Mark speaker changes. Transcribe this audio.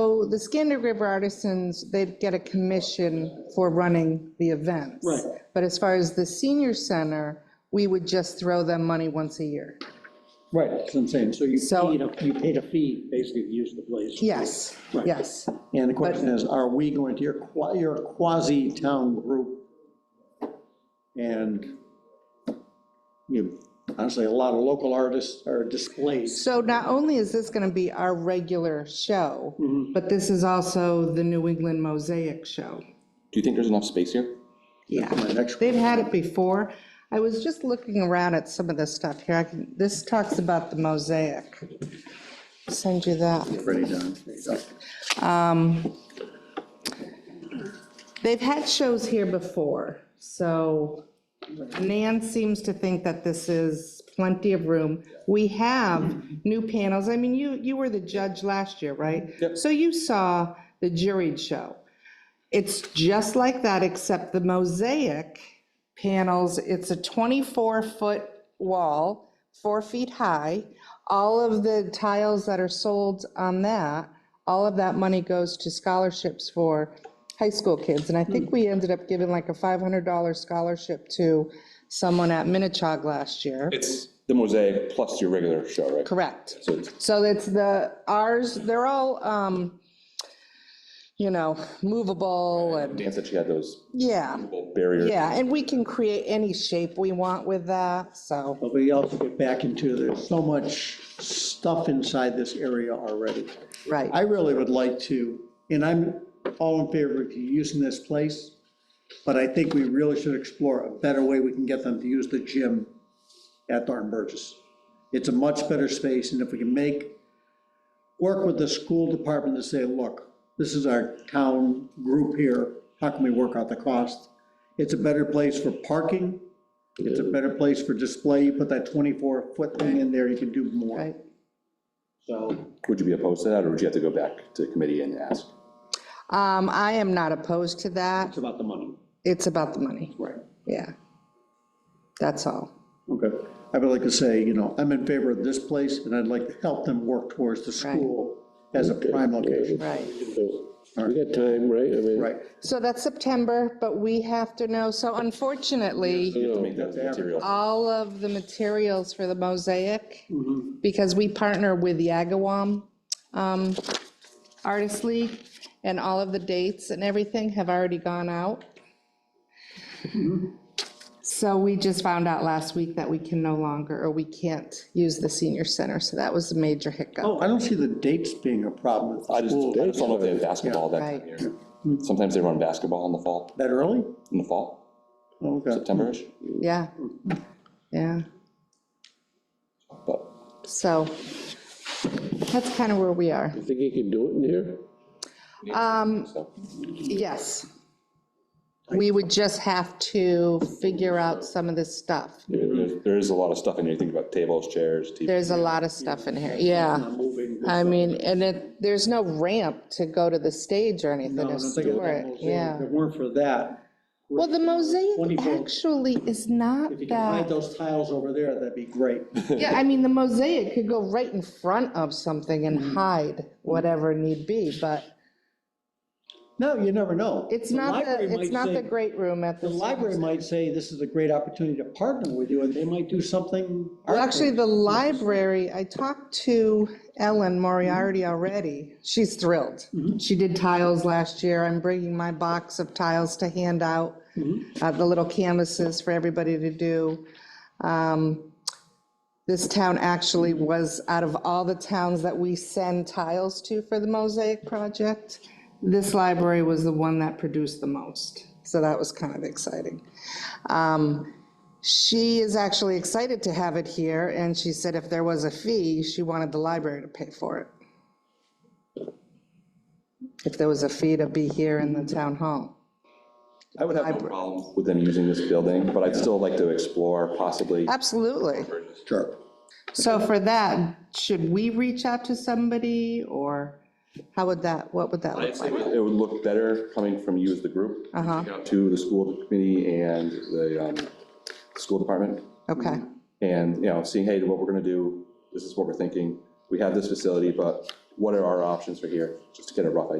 Speaker 1: So the Skander River Artisans, they get a commission for running the events.
Speaker 2: Right.
Speaker 1: But as far as the senior center, we would just throw them money once a year.
Speaker 2: Right, that's what I'm saying, so you
Speaker 1: So-
Speaker 2: paid, a- you paid a fee, basically, to use the place.
Speaker 1: Yes,
Speaker 2: Right.
Speaker 1: yes.
Speaker 3: And the question is, are we going to, you're qua- you're a quasi-town group, and you, honestly, a lot of local artists are displayed.
Speaker 1: So not only is this going to be our regular show, but this is also the New England Mosaic Show.
Speaker 4: Do you think there's enough space here?
Speaker 1: Yeah.
Speaker 3: My next
Speaker 1: They've had it before. I was just looking around at some of this stuff here. I can- This talks about the mosaic. Send you that.
Speaker 3: Pretty done. There you go.
Speaker 1: They've had shows here before, so Nan seems to think that this is plenty of room. We have new panels. I mean, you, you were the judge last year, right? Yep. So you saw the juried show. It's just like that, except the mosaic panels, it's a 24-foot wall, four feet high. All of the tiles that are sold on that, all of that money goes to scholarships for high school kids. And I think we ended up giving like a $500 scholarship to someone at Minichog last year.
Speaker 4: It's the mosaic plus your regular show, right?
Speaker 1: Correct.
Speaker 4: So it's-
Speaker 1: So it's the, ours, they're all, um, you know, movable and,
Speaker 4: Dan said she had those
Speaker 1: yeah.
Speaker 4: barriers.
Speaker 1: Yeah, and we can create any shape we want with that, so,
Speaker 3: But we also get back into, there's so much stuff inside this area already.
Speaker 1: right.
Speaker 3: I really would like to, and I'm all in favor of using this place, but I think we really should explore a better way we can get them to use the gym at Thornton Burgess. It's a much better space, and if we can make, work with the school department to say, look, this is our town group here, how can we work out the cost? It's a better place for parking, it's a better place for display, you put that 24-foot thing in there, you can do more.
Speaker 1: Right.
Speaker 3: So
Speaker 4: Would you be opposed to that, or would you have to go back to committee and ask?
Speaker 1: Um, I am not opposed to that.
Speaker 3: it's about the money.
Speaker 1: It's about the money,
Speaker 3: Right.
Speaker 1: yeah. That's all.
Speaker 3: Okay, I would like to say, you know, I'm in favor of this place, and I'd like to help them work towards the school as a prime location.
Speaker 1: Right.
Speaker 5: We got time, right? I mean,
Speaker 3: Right.
Speaker 1: So that's September, but we have to know, so unfortunately,
Speaker 4: You have to make that material.
Speaker 1: all of the materials for the mosaic, because we partner with the Agawam um, Artist League, and all of the dates and everything have already gone out. So we just found out last week that we can no longer, or we can't use the senior center, so that was a major hiccup.
Speaker 3: Oh, I don't see the dates being a problem at
Speaker 4: I
Speaker 3: the
Speaker 4: just,
Speaker 3: school.
Speaker 4: I just don't know if they have basketball that time
Speaker 1: Right.
Speaker 4: of year. Sometimes they run basketball in the fall,
Speaker 3: That early? Oh,
Speaker 4: in the fall,
Speaker 3: Okay.
Speaker 4: September-ish,
Speaker 1: Yeah, yeah,
Speaker 4: but
Speaker 1: so that's kind of where we are.
Speaker 5: You think you could do it in here?
Speaker 4: so.
Speaker 1: Yes. We would just have to figure out some of this stuff.
Speaker 4: I mean, there's- There is a lot of stuff in here. You think about tables, chairs, TV.
Speaker 1: There's a lot of stuff in here, yeah.
Speaker 3: Moving.
Speaker 1: I mean, and it, there's no ramp to go to the stage or anything
Speaker 3: No, I
Speaker 1: to
Speaker 3: don't think it
Speaker 1: store
Speaker 3: was
Speaker 1: it,
Speaker 3: almost there.
Speaker 1: yeah.
Speaker 3: If it weren't for that,
Speaker 1: Well, the mosaic
Speaker 3: 24.
Speaker 1: actually is not
Speaker 3: if you can hide
Speaker 1: that,
Speaker 3: those tiles over there, that'd be great.
Speaker 1: yeah, I mean, the mosaic could go right in front of something and
Speaker 3: Mm-hmm.
Speaker 1: hide whatever need be, but
Speaker 3: No, you never know.
Speaker 1: it's not,
Speaker 3: library
Speaker 1: the it's
Speaker 3: might
Speaker 1: not
Speaker 3: say-
Speaker 1: the great room at the.
Speaker 3: The library might say, this is a great opportunity to partner with you, and they might do something.
Speaker 1: Well, actually, the library, I talked to Ellen Moriarty already. She's thrilled. She did tiles last year. I'm bringing my box of tiles to hand out, uh, the little canvases for everybody to do. Um, This town actually was, out of all the towns that we send tiles to for the mosaic project, this library was the one that produced the most. So that was kind of exciting. Um, she is actually excited to have it here, and she said if there was a fee, she wanted the library to pay for it. If there was a fee to be here in the town hall.
Speaker 4: I would have no problem with them using this building, but I'd still like to explore possibly.
Speaker 1: Absolutely.
Speaker 3: Sure.
Speaker 1: So for that, should we reach out to somebody, or how would that, what would that look like? Uh-huh.
Speaker 4: It would look better coming from you as the group. reaching out To the school committee and the um, school department.
Speaker 1: Okay,
Speaker 4: And, you know, seeing, hey, what we're going to do, this is what we're thinking. We have this facility, but what are our options for here, just to get a rough idea.